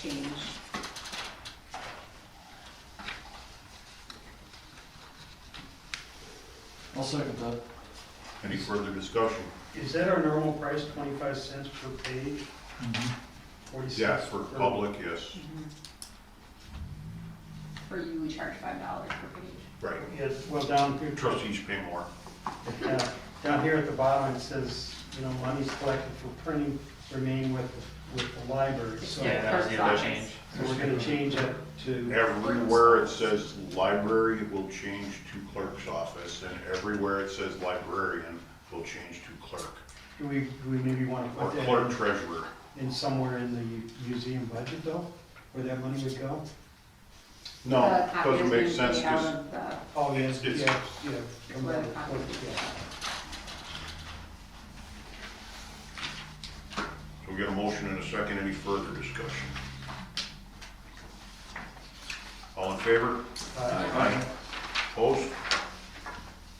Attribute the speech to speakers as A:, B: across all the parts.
A: change.
B: I'll second that.
C: Any further discussion?
D: Is that our normal price, twenty-five cents per page, forty-six?
C: Yes, for
D: per-
C: public, yes,
A: Or you would charge five dollars per page.
C: right.
D: Yeah, well, down here,
C: Trustees pay more.
D: yeah, down here at the bottom, it says, you know, monies collected for printing remain with, with the library, so.
A: Yeah,
E: that was the other
A: first
E: change.
D: So we're gonna change it to,
C: Everywhere it says library will change to clerk's office, and everywhere it says librarian will change to clerk,
D: do we, do we maybe wanna
C: or
D: put
C: clerk
D: that
C: treasurer.
D: in somewhere in the museum budget though, where that money would go?
C: No,
A: The copy
C: doesn't
A: is
C: make
A: being
C: sense,
A: made out
C: 'cause
A: of the-
D: Oh, yes,
C: It's-
D: yeah, yeah. come
A: where
D: on,
A: the copy
D: what-
A: is.
D: yeah.
C: So we got a motion and a second, any further discussion? All in favor?
D: Uh,
C: Aye. Opposed?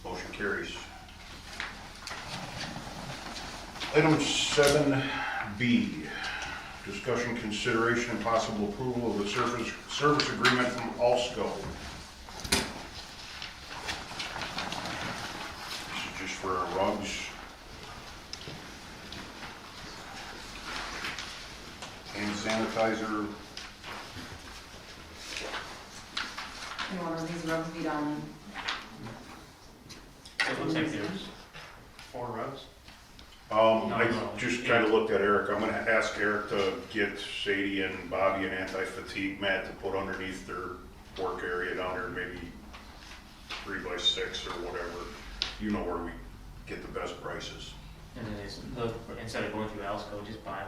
C: Motion carries. Item seven B, discussion, consideration, and possible approval of the service, service agreement from Alsco. This is just for our rugs. Hand sanitizer,
A: You want to these rugs be done,
E: It looks like there's four rows.
C: Um,
E: No,
C: I
E: no.
C: just kind of looked at Eric, I'm gonna ask Eric to get Sadie and Bobby an anti-fatigue mat to put underneath their work area down there, maybe three by six or whatever. You know where we get the best prices.
E: And then it's, look, instead of going through Alsco, just buy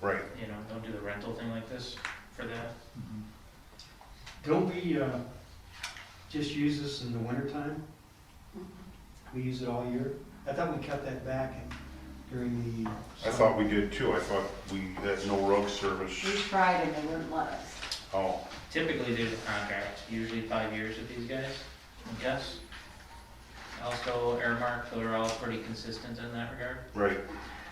E: one,
C: Right.
E: you know, don't do the rental thing like this for that.
D: Don't we, uh, just use this in the wintertime? We use it all year? I thought we cut that back in- during the.
C: I thought we did too, I thought we, that no rug service,
A: we tried and they wouldn't let us.
C: oh,
E: Typically, there's a contract, usually five years with these guys, I guess. Alsco, Airmark, they're all pretty consistent in that regard.
C: right,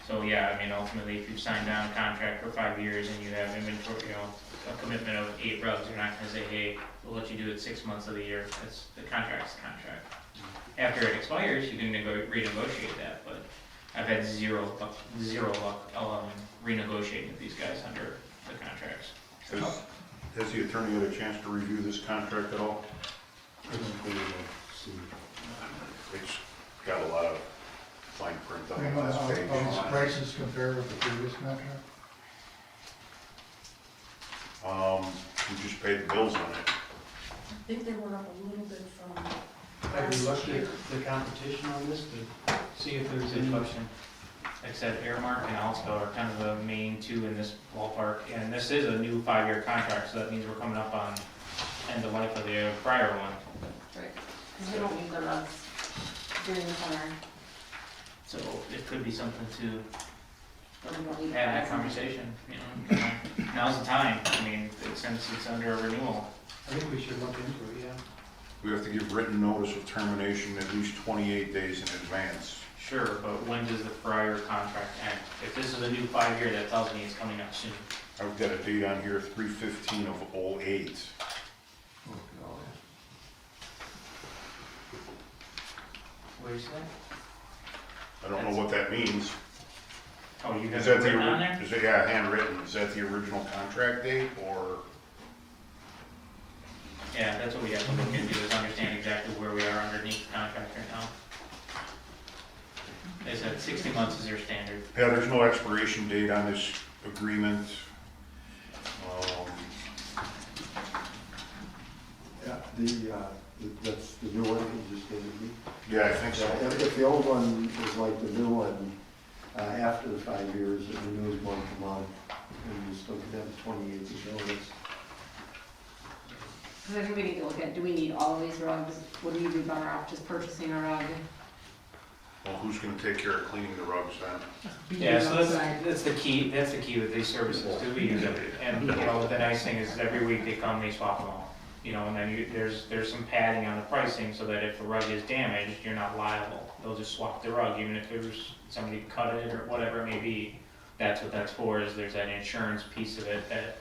E: So, yeah, I mean, ultimately, if you've signed down a contract for five years and you have inventory, you know, a commitment of eight rugs, you're not gonna say, hey, we'll let you do it six months of the year, that's, the contract's the contract. After it expires, you can nego- renegotiate that, but I've had zero, luck- zero luck, um, renegotiating with these guys under the contracts.
C: has, has the attorney had a chance to review this contract at all? It's got a lot of fine print on the
F: How
C: last
F: these
C: page.
F: prices compare with the previous contract?
C: Um, we just paid the bills on it.
G: I think they went up a little bit from
D: Have
G: last
D: we looked
G: year.
D: at the competition on this to see if there's
E: Good
D: any?
E: question. Like I said, Airmark and Alsco are kind of the main two in this ballpark, and this is a new five-year contract, so that means we're coming up on end of life of the prior one.
A: Because we don't use the rugs during the summer,
E: So it could be something to
A: but we don't need.
E: have that
A: rugs.
E: conversation, you know? Now's the time, I mean, since it's under a renewal.
D: I think we should look into it, yeah.
C: We have to give written notice of termination at least 28 days in advance.
E: Sure, but when does the prior contract end? If this is a new five-year, that tells me it's coming up soon.
C: I've got a date on here, 3/15 of '08.
E: Where's that?
C: I don't know what that means.
E: Oh, you
C: Is
E: have
C: that
E: it
C: the,
E: written on
C: ori-
E: there?
C: is it, yeah, handwritten, is that the original contract date, or?
E: Yeah, that's what we have to look into, is understand exactly where we are underneath the contract right now. They said sixty months is their standard.
C: Yeah, there's no expiration date on this agreement. Um,
H: Yeah, the, uh, th- that's the new one you just gave me.
C: Yeah, I think
H: Yeah,
C: so.
H: If if the old one is like the new one, uh, after the five years, it renews month to month, and you still can have twenty-eight to go, it's
A: Because I think we need to look at, do we need all of these rugs? Would we be better off just purchasing a rug?
C: Well, who's gonna take care of cleaning the rugs then?
E: Yeah, so
A: Outside.
E: that's, that's the key, that's the key with these services, do we use it? And, you know, the nice thing is every week they come, they swap them all. You know, and then you, there's, there's some padding on the pricing so that if the rug is damaged, you're not liable. They'll just swap the rug, even if there's somebody cut it or whatever it may be. That's what that's for, is there's that insurance piece of it that